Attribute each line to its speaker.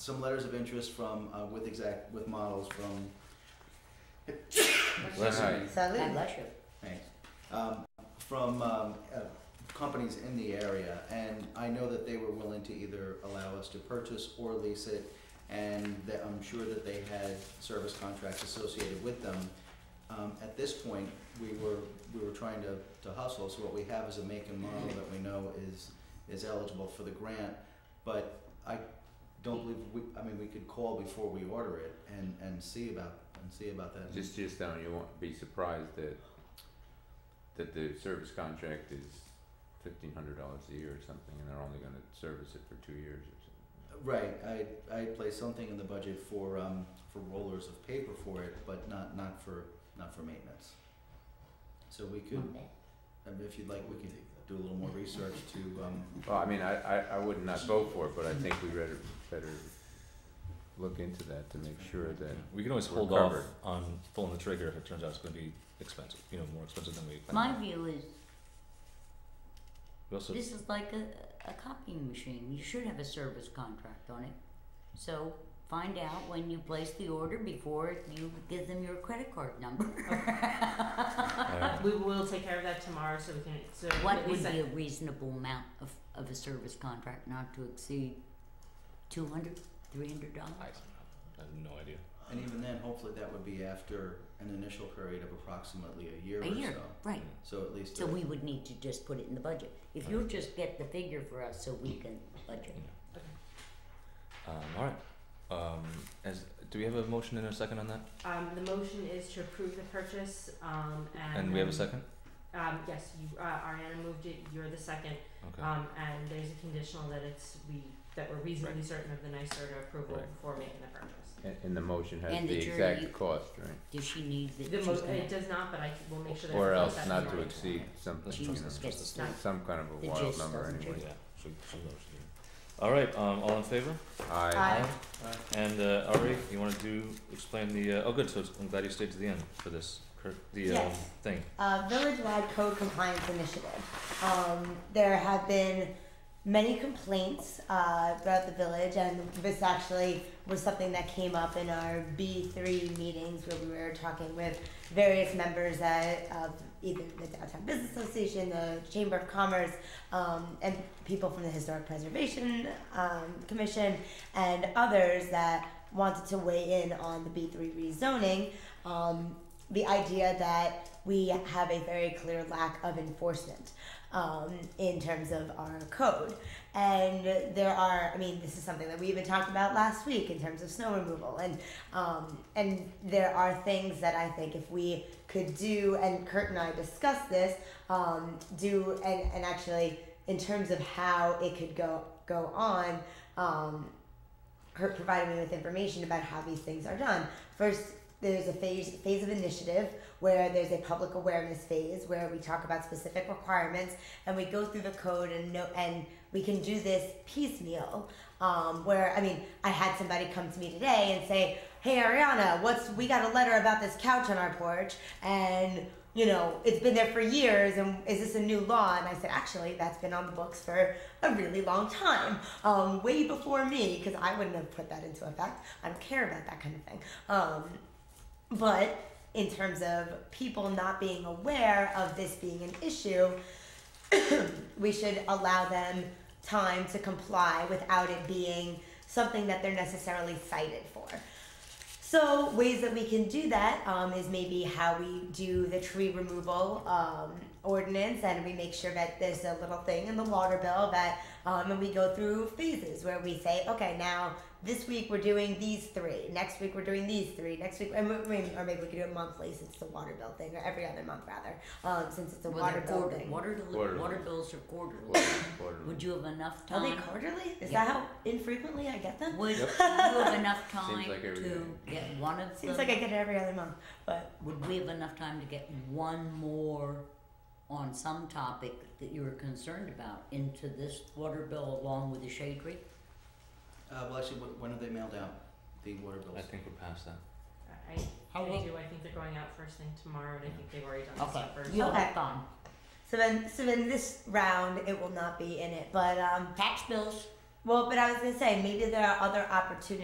Speaker 1: some letters of interest from uh, with exact with models from
Speaker 2: Bless you.
Speaker 3: God
Speaker 4: Salud.
Speaker 3: bless you.
Speaker 1: thanks, um, from um, uh, companies in the area, and I know that they were willing to either allow us to purchase or lease it, and that I'm sure that they had service contracts associated with them. Um, at this point, we were we were trying to, to hustle, so what we have is a make and model that we know is is eligible for the grant, but I don't believe we, I mean, we could call before we order it and, and see about and see about that.
Speaker 2: Just, just don't, you won't be surprised that, that the service contract is fifteen hundred dollars a year or something, and they're only gonna service it for two years or something.
Speaker 1: Right, I, I placed something in the budget for, um, for rollers of paper for it, but not, not for, not for maintenance. So we could, I mean, if you'd like, we could do a little more research to, um,
Speaker 2: Well, I mean, I, I, I would not vote for it, but I think we better, better look into that to make sure that,
Speaker 5: We can always
Speaker 2: We're
Speaker 5: hold off
Speaker 2: covered.
Speaker 5: on pulling the trigger if it turns out it's going to be expensive, you know, more expensive than we planned.
Speaker 4: My view is
Speaker 5: We also,
Speaker 4: this is like a, a copying machine. You should have a service contract on it. So find out when you place the order before you give them your credit card number.
Speaker 5: uh,
Speaker 6: We will take care of that tomorrow so we can, so
Speaker 4: What
Speaker 6: we
Speaker 4: would be
Speaker 6: sent,
Speaker 4: a reasonable amount of, of a service contract not to exceed two hundred, three hundred dollars?
Speaker 5: I, I have no idea.
Speaker 1: and even then, hopefully that would be after an initial period of approximately a year or
Speaker 4: A
Speaker 1: so.
Speaker 4: year, right.
Speaker 1: So at least,
Speaker 4: So we would need to just put it in the budget. If you'll just get the figure for us so we can budget.
Speaker 5: Um, all right. Um, as, do we have a motion and a second on that?
Speaker 6: um, the motion is to approve the purchase, um, and.
Speaker 5: And we have a
Speaker 6: then,
Speaker 5: second?
Speaker 6: Um, yes, you, uh, Ariana moved it, you're the second,
Speaker 5: Okay.
Speaker 6: um, and there's a conditional that it's, we, that we're reasonably certain of the NYSERDA approval
Speaker 2: Right.
Speaker 6: before making the purchase.
Speaker 2: and, and the motion has
Speaker 4: And
Speaker 2: the
Speaker 4: the jury-
Speaker 2: exact cost, right?
Speaker 4: Does she need that
Speaker 6: The
Speaker 4: she's
Speaker 6: mo-
Speaker 4: gonna-
Speaker 6: it does not, but I will make sure that.
Speaker 2: Or
Speaker 6: it's
Speaker 2: else
Speaker 6: set
Speaker 2: not to
Speaker 6: tomorrow.
Speaker 2: exceed something,
Speaker 5: That's
Speaker 2: you know,
Speaker 4: Jesus
Speaker 5: something
Speaker 4: gets
Speaker 6: else.
Speaker 2: some kind of a
Speaker 4: The
Speaker 2: wild
Speaker 4: gist
Speaker 2: number
Speaker 4: doesn't
Speaker 2: anyway.
Speaker 4: change.
Speaker 5: Yeah. She, she knows. yeah. All right. Um, all in favor?
Speaker 2: Aye.
Speaker 1: Aye.
Speaker 5: And uh, Ari, you want to do explain the? Uh, oh, good. So it's- I'm glad you stayed to the end for this. cur- The um,
Speaker 3: Yes.
Speaker 5: thing.
Speaker 3: uh, village-wide code compliance initiative. Um, there have been many complaints uh, throughout the village, and this actually was something that came up in our B3 meetings where we were talking with various members at, of either the Downtown Business Association, the Chamber of Commerce, um, and people from the Historic Preservation um, Commission, and others that wanted to weigh in on the B3 rezoning. Um, the idea that we have a very clear lack of enforcement um, in terms of our code. And there are, I mean, this is something that we even talked about last week in terms of snow removal. And, um, and there are things that I think if we could do, and Kurt and I discussed this, um, do, and, and actually in terms of how it could go, go on, um, her provided me with information about how these things are done. First, there's a phase phase of initiative where there's a public awareness phase where we talk about specific requirements and we go through the code and no and we can do this piecemeal. Um, where I mean, I had somebody come to me today and say, "Hey Ariana, what's we got a letter about this couch on our porch and." You know, it's been there for years, and is this a new law? And I said, actually, that's been on the books for a really long time, um, way before me, because I wouldn't have put that into effect. I don't care about that kind of thing. Um, but in terms of people not being aware of this being an issue, we should allow them time to comply without it being something that they're necessarily cited for. So ways that we can do that um, is maybe how we do the tree removal um, ordinance, and we make sure that there's a little thing in the water bill that, um, and we go through phases where we say, okay, now this week we're doing these three, next week we're doing these three, next week, and we, we- or maybe we could do it monthly since it's a water bill thing, or every other month rather, um, since it's a
Speaker 4: Well,
Speaker 3: water
Speaker 4: they're
Speaker 3: bill
Speaker 4: quarter-
Speaker 3: thing.
Speaker 4: Water, deli-
Speaker 2: Quarterly.
Speaker 4: water bills are quarterly.
Speaker 2: Quarterly, quarterly.
Speaker 4: Would you have enough
Speaker 3: Are they
Speaker 4: time?
Speaker 3: quarterly? Is
Speaker 4: Yeah.
Speaker 3: that how infrequently I get them?
Speaker 4: Would you
Speaker 2: Yep.
Speaker 4: have enough time
Speaker 2: Seems like every
Speaker 4: to
Speaker 2: day.
Speaker 4: get one of
Speaker 3: Seems
Speaker 4: them?
Speaker 3: like I get it every other month, but
Speaker 4: Would we have enough time to get one more on some topic that you were concerned about into this water bill along with the shade tree?
Speaker 1: uh, well, actually, wh- when are they mailed out, the water bills?
Speaker 5: I think we're past that.
Speaker 6: I,
Speaker 4: How
Speaker 6: I
Speaker 4: will-
Speaker 6: do, I think they're going out first thing tomorrow, and I think they've already done this
Speaker 4: Okay,
Speaker 6: stuff first.
Speaker 4: you'll
Speaker 3: Okay.
Speaker 4: have fun.
Speaker 3: so then so then this round it will not be in it, but um
Speaker 4: Tax bills,
Speaker 3: Well, but I was gonna say maybe there are other opportunities.